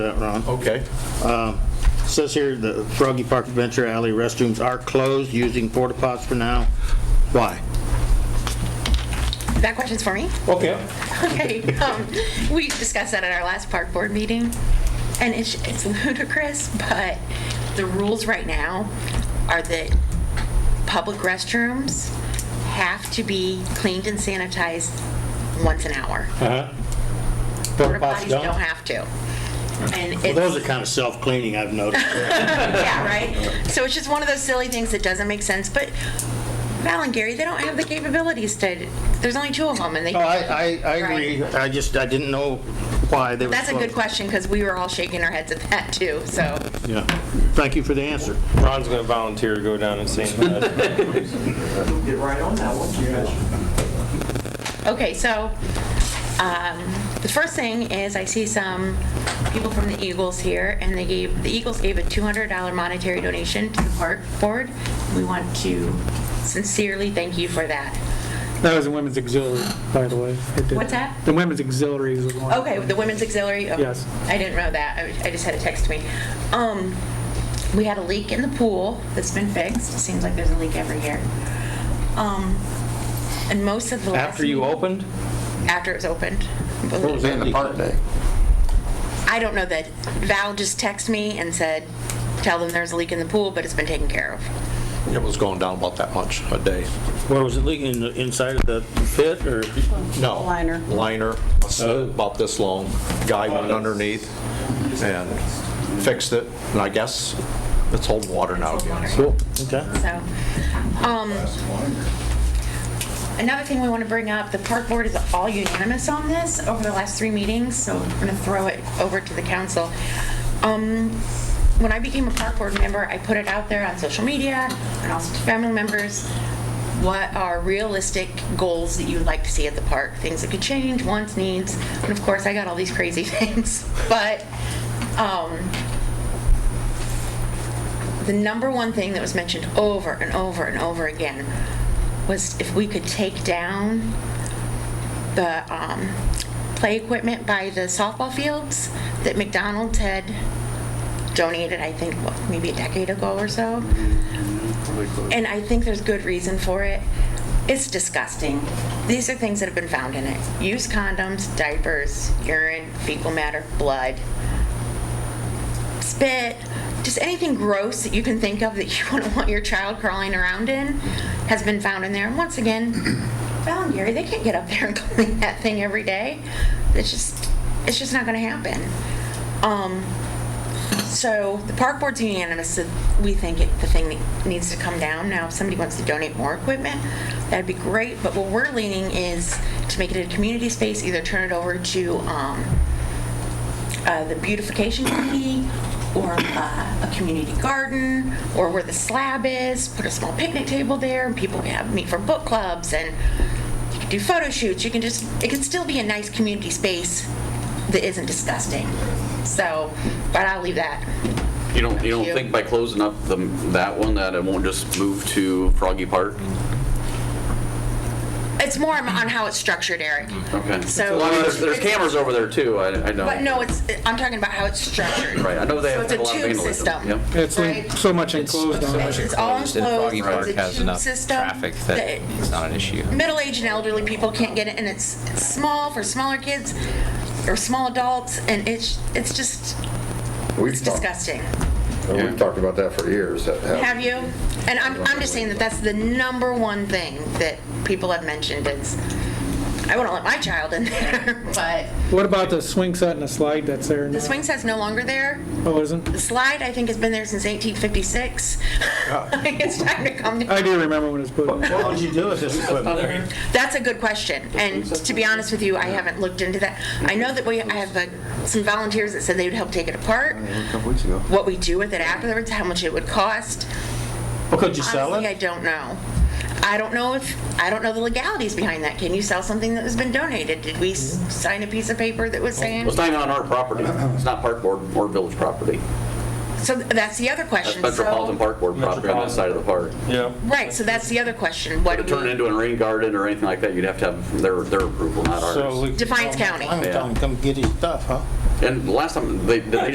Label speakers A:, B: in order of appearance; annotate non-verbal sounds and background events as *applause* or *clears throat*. A: that, Ron. Um,
B: Okay.
A: Says here, the Froggy Park Adventure Alley restrooms are closed, using porta pots for now. Why?
C: That question's for me? *laughs*
B: Okay.
C: Okay, um, we discussed that at our last park board meeting, and it's, it's ludicrous, but the rules right now are that public restrooms have to be cleaned and sanitized once an hour.
B: Porta
C: Porta
B: potties
C: potties
B: don't?
C: don't have to. And it's.
A: Well, those are kind of self-cleaning, I've *laughs* noticed.
C: Yeah, right? So it's just one of those silly things that doesn't make sense, but Val and Gary, they don't have the capabilities to, there's only two of them, and they.
A: No, Oh, I, I, I agree. I just, I didn't know why they were.
C: That's a good
A: closed.
C: question, because we were all shaking our heads at that, too, so.
A: Yeah. Thank you for the answer.
D: Ron's gonna volunteer to go down and see him.
E: Get right on that one,
C: Okay, so, um, the first thing is I see some people from the Eagles here, and they gave, the Eagles gave a $200 monetary donation to the park board. We want to sincerely thank you for that.
F: That was the women's auxiliary, by the way. It did-
C: What's that?
F: The women's auxiliary is the one.
C: Okay, the women's auxiliary? oh,
F: Yes.
C: I didn't know that. I- I just had it text me. Um, we had a leak in the pool that's been fixed. It seems like there's a leak every year. Um, and most of the last.
D: After you
C: meeting-
D: opened?
C: After it was opened.
B: the park day.
C: I don't know that Val just texted me and said, tell them there's a leak in the pool, but it's been taken care of.
B: It was going down about that much a day.
A: Well, was it leaking in the- inside of the pit or?
B: No.
G: Liner.
B: Liner, Uh, about this long. Guy went underneath and fixed it, and I guess it's holding water now again.
A: Cool. Okay.
C: So, um, another thing we want to bring up, the park board is all unanimous on this over the last three meetings, so I'm going to throw it over to the council. Um, when I became a park board member, I put it out there on social media and also to family members, what are realistic goals that you'd like to see at the park? Things that could change, wants, needs, and of course, I got all these crazy *laughs* things, but, um, the number one thing that was mentioned over and over and over again was if we could take down the um, play equipment by the softball fields that McDonald's had donated, I think, what, maybe a decade ago or so. And I think there's good reason for it. It's disgusting. These are things that have been found in it. Used condoms, diapers, urine, fecal matter, blood spit, just anything gross that you can think of that you *laughs* wouldn't want your child crawling around in has been found in there. And once again, *clears throat* Val and Gary, they can't get up there and *laughs* clean that thing every day. It's just, it's just not gonna happen. Um, so the park board's unanimous that we think it, the thing needs to come down. Now, if somebody wants to donate more equipment, that'd be great, but what we're leaning is to make it a community space, either turn it over to, um, uh, the beautification committee or uh, a community garden or where the slab is, put a small picnic table there and people can have meet for book clubs and you can do photo shoots. You can just, it can still be a nice community space that isn't disgusting. So, but I'll leave that.
H: You don't, you don't
C: you.
H: think by closing up the, that one, that it won't just move to Froggy Park?
C: It's more on how it's structured, Eric.
H: Okay.
C: So-
H: Well, I mean, there's, there's
C: It's-
H: cameras over there too, I, I know.
C: But no, it's, I'm talking about how it's structured.
H: Right, I know they
C: So
H: have
C: it's
H: a lot of
C: tube
H: vandalism.
C: system.
H: Yep.
F: It's like
C: Right.
F: so much enclosed on it.
C: It's all enclosed.
I: And Froggy Park
C: It's a
I: has
C: tube
I: enough
C: system
I: traffic that
C: that-
I: it's not an issue.
C: middle-aged and elderly people can't get it, and it's, it's small for smaller kids or small adults, and it's it's just
J: We've
C: it's
J: talked-
C: disgusting.
J: and We've talked about that for years. that-
C: Have you? And I'm I'm just saying that that's the number one thing that people have mentioned is I wouldn't let my child in there, *laughs* but
F: What about the swing set and the slide that's there?
C: the
F: now?
C: swing set's no longer there.
F: Oh, isn't?
C: The slide I think has been there since 1856. *laughs* I think it's time to come. down.
F: I do remember when it was put in.
A: What would you do with this equipment?
C: That's a good question, and to be honest with you, I haven't looked into that. I know that we, I have uh, some volunteers that said they would help take it apart,
E: A couple weeks ago.
C: what we do with it afterwards, how much it would cost.
A: Well, could you sell
C: Honestly, I
A: it?
C: don't know. I don't know if, I don't know the legalities behind that. Can you sell something that has been donated? Did we s- sign a piece of paper that was
H: Well,
C: saying?
H: It's not even on our property. It's not Park Board or Village property.
C: So th- that's the other
H: That's
C: question.
H: Metropolitan
C: So-
H: Park Board property on that side of the park.
D: Yeah.
C: Right, so that's the other question. What
H: To
C: do
H: turn it
C: we,
H: into a rain garden or anything like that, you'd have to have their, their approval, not
D: So
H: ours.
D: we-
C: Defiance County.
A: I'm telling him, come get his stuff, huh?
H: And last time, they, did they